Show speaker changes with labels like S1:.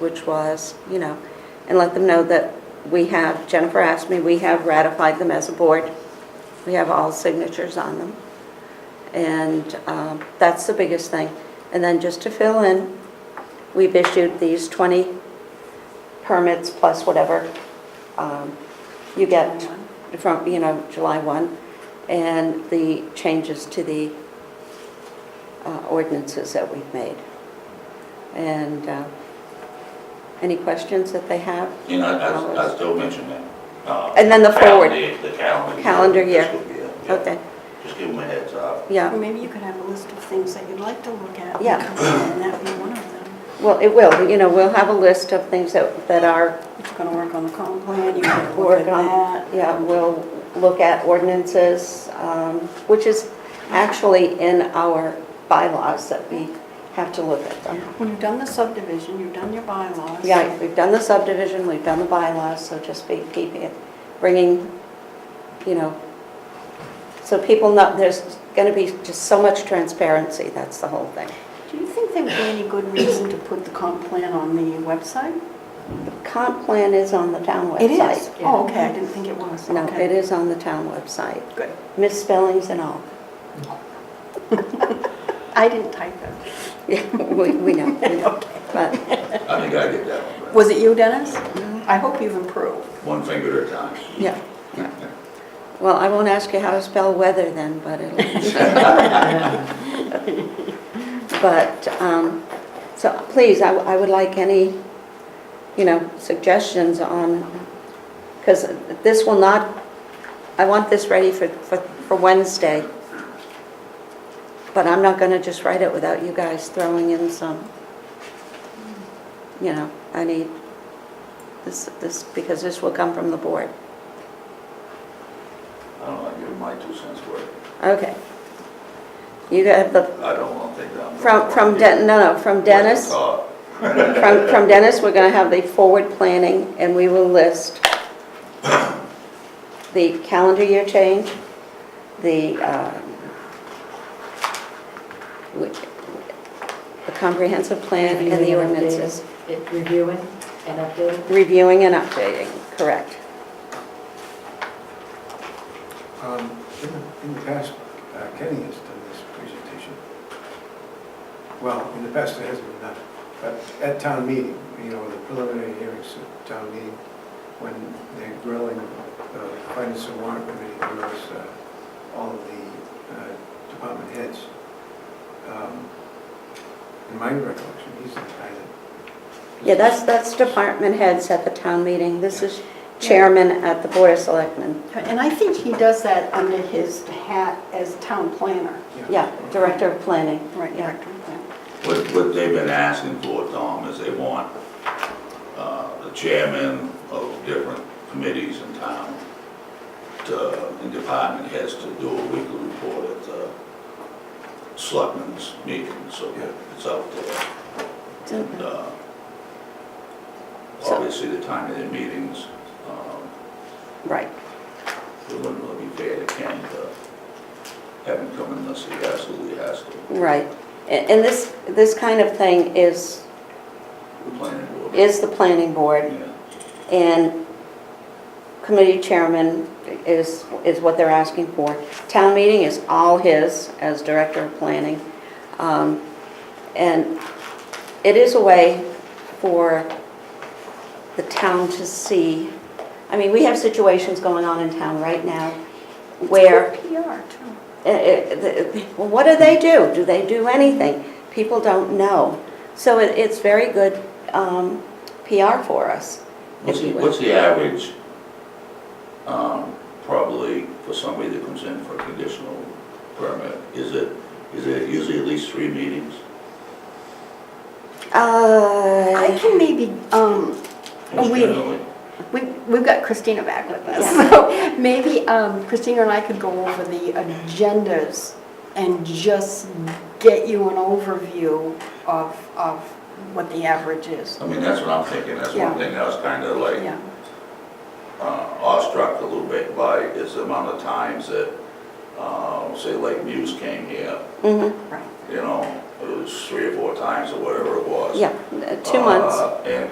S1: which was, you know, and let them know that we have, Jennifer asked me, we have ratified them as a board. We have all signatures on them. And um, that's the biggest thing. And then just to fill in, we've issued these 20 permits plus whatever um, you get from, you know, July 1, and the changes to the uh, ordinances that we've made. And uh, any questions that they have?
S2: You know, I, I- I still mention that. uh,
S1: And then the forward.
S2: calendar- The calendar.
S1: Calendar year.
S2: Fiscal year, yeah.
S1: Okay,
S2: Just give them a heads up.
S1: yeah.
S3: Or maybe you could have a list of things that you'd like to look at. and
S1: Yeah.
S3: come in, And that would be one of them.
S1: Well, it will, you know, we'll have a list of things that, that are,
S3: If you're going to work on the comp plan, you could look
S1: Work
S3: at
S1: on-
S3: that.
S1: yeah, we'll look at ordinances, um, which is actually in our bylaws that we have to look at them.
S3: When you've done the subdivision, you've done your bylaws.
S1: Yeah, we've done the subdivision, we've done the bylaws, so just be keeping it, bringing, you know, so people know, there's gonna be just so much transparency, that's the whole thing.
S3: Do you think there would be any good reason to put the comp plan on the website?
S1: The comp plan is on the town website.
S3: Oh, okay, I didn't think it was.
S1: No,
S3: Okay.
S1: it is on the town website,
S3: Good.
S1: misspellings and all.
S3: I didn't type it.
S1: Yeah, we, we know, we know. But,
S2: I think I get that one, but
S3: Was it you, Dennis?
S1: Mm-hmm.
S3: I hope you've improved.
S2: one finger at a time.
S1: yeah, yeah. Well, I won't ask you how to spell weather then, but it'll. But, um, so please, I, I would like any, you know, suggestions on, because this will not, I want this ready for, for, for Wednesday. But I'm not gonna just write it without you guys throwing in some, you know, I need this, this, because this will come from the board.
S2: I don't know, I give my two cents worth.
S1: Okay. You got the,
S2: I don't want to think that. I'm-
S1: from, from Den, no, no, from Dennis,
S2: Uh,
S1: from, from Dennis, we're gonna have the forward planning, and we will list the calendar year change, the, um, which, the comprehensive plan and the
S4: Reviewing and
S1: ordinances,
S4: updating. It- Reviewing and updating.
S1: reviewing and updating, correct.
S5: Um, In the- in the past, uh, Kenny has done this presentation. Well, in the past, it hasn't been done, but at town meeting, you know, the preliminary hearings at town meeting, when they're grilling the finance and warrant committee, grills uh, all of the uh, department heads. Um, In my recollection, he's the guy that...
S1: Yeah, that's, that's department heads at the town meeting, this is chairman at the board of selectmen,
S3: And I think he does that under his hat as town planner.
S1: yeah, director of planning.
S3: Right,
S1: Yeah.
S3: director of planning.
S2: What, what they've been asking for, Tom, is they want, uh, the chairman of different committees in town to, and department heads to do a weekly report at the selectmen's meeting, so
S5: Yeah.
S2: it's out there. And, uh,
S1: So-
S2: obviously, the time of their meetings, um,
S1: Right.
S2: it wouldn't really be fair to Ken to have him come unless he absolutely has to.
S1: Right. And and this, this kind of thing is,
S2: The planning board.
S1: is the planning board,
S2: Yeah.
S1: and committee chairman is, is what they're asking for. Town meeting is all his as director of planning. Um, And it is a way for the town to see, I mean, we have situations going on in town right now where
S3: PR, too.
S1: Uh, uh, the- well, what do they do? Do they do anything? People don't know. So it, it's very good um, PR for us.
S2: What's
S1: if
S2: the,
S1: you will.
S2: what's the average, um, probably for somebody that comes in for a conditional permit? Is it, is it usually at least three meetings?
S3: I
S1: Uh,
S3: can maybe, um,
S2: most
S3: We-
S2: generally?
S3: we, we've got Christina back with us, so maybe um, Christina and I could go over the agendas and just get you an overview of, of what the average is.
S2: I mean, that's what I'm thinking, that's
S3: Yeah.
S2: one thing that I was kind of like
S3: Yeah,
S2: uh, awestruck a little bit by is the amount of times that, uh, say like Muse came here,
S1: mhm,
S3: right.
S2: you know, it was three or four times or whatever it was.
S1: Yeah, uh, two months.
S2: Uh, And,